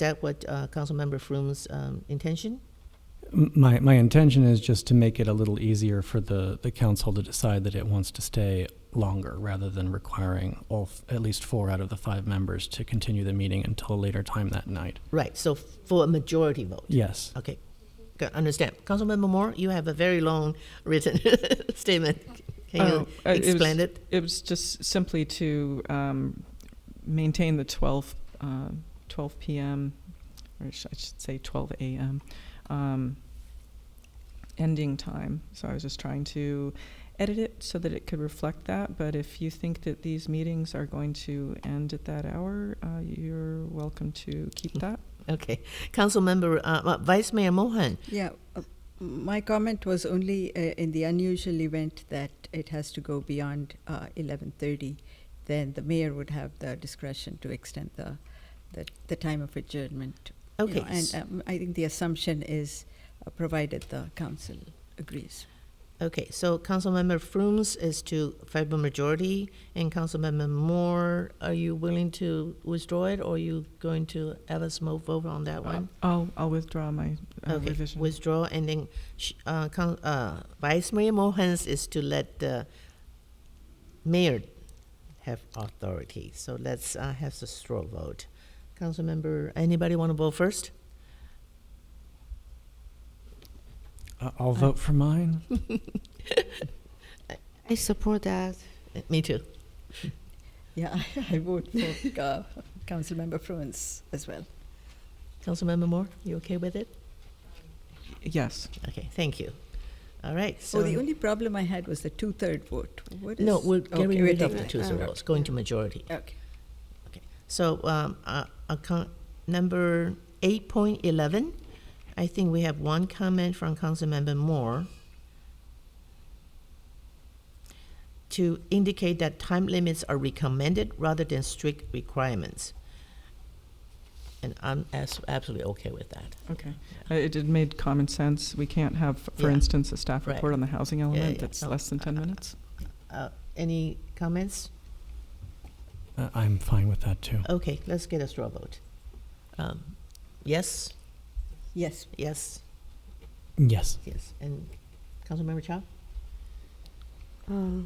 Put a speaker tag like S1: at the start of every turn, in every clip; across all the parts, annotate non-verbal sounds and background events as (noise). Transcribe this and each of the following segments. S1: that what uh, Councilmember Froome's um, intention?
S2: M- My, my intention is just to make it a little easier for the, the council to decide that it wants to stay longer rather than requiring all, f- at least four out of the five members to continue the meeting until a later time that night.
S1: Right, so for a majority vote.
S2: Yes.
S1: Okay, Good, understand. Councilmember Moore, you have a very long (laughs) written statement. Can you
S3: Oh, uh, it was-
S1: explain it?
S3: It was just simply to um, maintain the 12, uh, 12 p.m., or sh- I should say 12 a.m., um, ending time. So I was just trying to edit it so that it could reflect that. But if you think that these meetings are going to end at that hour, uh, you're welcome to keep
S1: Mm.
S3: that.
S1: Okay, Councilmember, uh, uh, Vice Mayor Mohan,
S4: Yeah, uh, my comment was only uh, in the unusual event that it has to go beyond uh, 11:30, then the mayor would have the discretion to extend the the, the time of adjournment. you know,
S1: okay.
S4: and um, I think the assumption is uh, provided the council agrees.
S1: Okay, so Councilmember Frooms is to favorable majority, and Councilmember Moore, are you willing to withdraw it, or are you going to have us move vote on that one?
S3: Um, I'll, I'll withdraw my uh,
S1: Okay,
S3: revision.
S1: withdraw, and then sh- uh, Coun- uh, Vice Mayor Mohans is to let the mayor have authority. So let's uh, have the straw vote. Councilmember, anybody want to vote first?
S2: I- Uh, I'll vote for mine.
S5: I support that.
S1: Uh, Me too.
S4: Yeah, (laughs) I vote for uh, Councilmember Fruins as well.
S1: Councilmember Moore, you okay with it?
S3: Yes.
S1: Okay, thank you. All right, so.
S4: oh, the only problem I had was the two-third vote. What is,
S1: No, we're
S4: okay,
S1: getting rid of the
S4: taking-
S1: two
S4: uh,
S1: zeros, going to majority.
S4: Okay.
S1: So, um, uh, account number eight point eleven, I think we have one comment from Councilmember Moore to indicate that time limits are recommended rather than strict requirements. And I'm as- absolutely okay with that.
S3: Okay. Uh, It it made common sense. We can't have, for
S1: Yeah.
S3: instance, a staff
S1: Right.
S3: report on the housing element
S1: yeah.
S3: that's
S1: No, uh,
S3: less than ten
S1: I- I-
S3: minutes.
S1: Uh, any comments?
S2: I- Uh, I'm fine with that too.
S1: Okay, let's get a straw vote. Um, yes,
S4: Yes,
S1: yes,
S2: Yes.
S1: yes, and Councilmember Chow?
S5: Uh,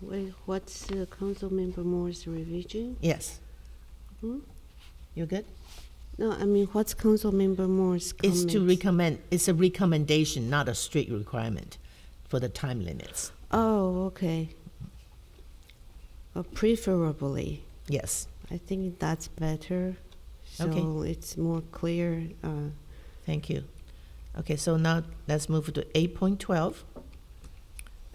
S5: wait, what's uh, Council Member Moore's revision?
S1: Yes.
S5: Hmm?
S1: You good?
S5: No, I mean, what's Council Member Moore's
S1: It's
S5: comment?
S1: to recommend, it's a recommendation, not a strict requirement for the time limits.
S5: Oh, okay. Uh, preferably,
S1: Yes,
S5: I think that's better. So
S1: Okay.
S5: it's more clear. Uh,
S1: thank you. Okay, so now let's move to eight point twelve.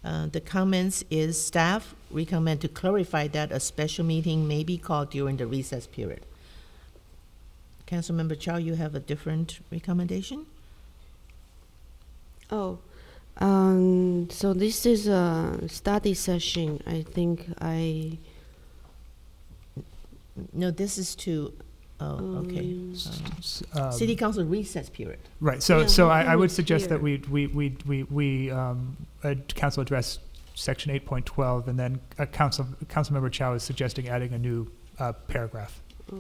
S1: Uh, the comments is staff recommend to clarify that a special meeting may be called during the recess period. Councilmember Chow, you have a different recommendation?
S5: oh, um, so this is a study session. I think I.
S1: No, this is to, oh, okay.
S5: um,
S1: Um,
S6: Um,
S1: City council recess period.
S6: Right, so,
S5: Yeah,
S6: so
S5: we
S6: I, I
S5: have
S6: would
S5: it
S6: suggest that we,
S5: here.
S6: we, we, we, we, um, uh, council address section eight point twelve, and then, uh, council, councilmember Chow is suggesting adding a new, uh, paragraph.
S5: oh.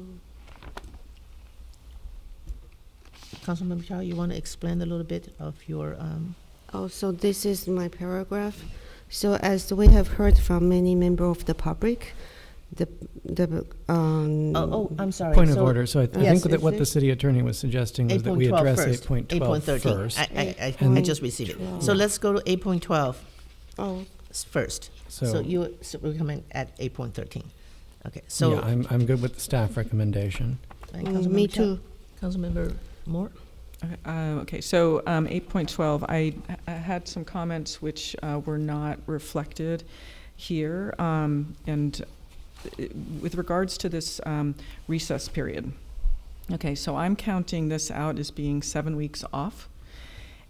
S1: Councilmember Chow, you want to explain a little bit of your, um,
S5: Oh, so this is my paragraph. So as we have heard from many member of the public, the, the, um.
S1: oh, oh, I'm sorry.
S2: Point of
S1: so-
S2: order. So I I
S1: Yes.
S2: think that what the city attorney was suggesting was that we
S1: 8.12
S2: address
S1: first.
S2: eight point
S1: 8.13.
S2: twelve first.
S1: I, I, I, I just received it. So
S5: 8.12.
S1: let's go to 8.12
S5: Oh,
S1: s- first. So
S2: So,
S1: you s- recommend at 8.13. Okay,
S2: yeah,
S1: so.
S2: I'm, I'm good with the staff recommendation.
S1: and
S5: mm, me
S1: Councilmember Chow?
S5: too.
S1: Councilmember Moore?
S3: Okay, uh, Okay, so um, 8.12, I I had some comments which uh, were not reflected here, um, and uh, with regards to this um, recess period. Okay, so I'm counting this out as being seven weeks off,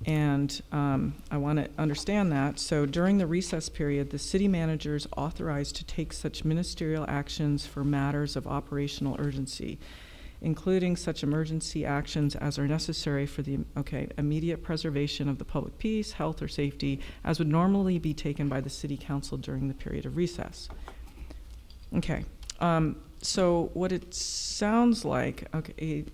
S3: and um, I want to understand that. So during the recess period, the city manager is authorized to take such ministerial actions for matters of operational urgency including such emergency actions as are necessary for the okay immediate preservation of the public peace, health, or safety, as would normally be taken by the city council during the period of recess. Okay. Um, so what it sounds like, okay,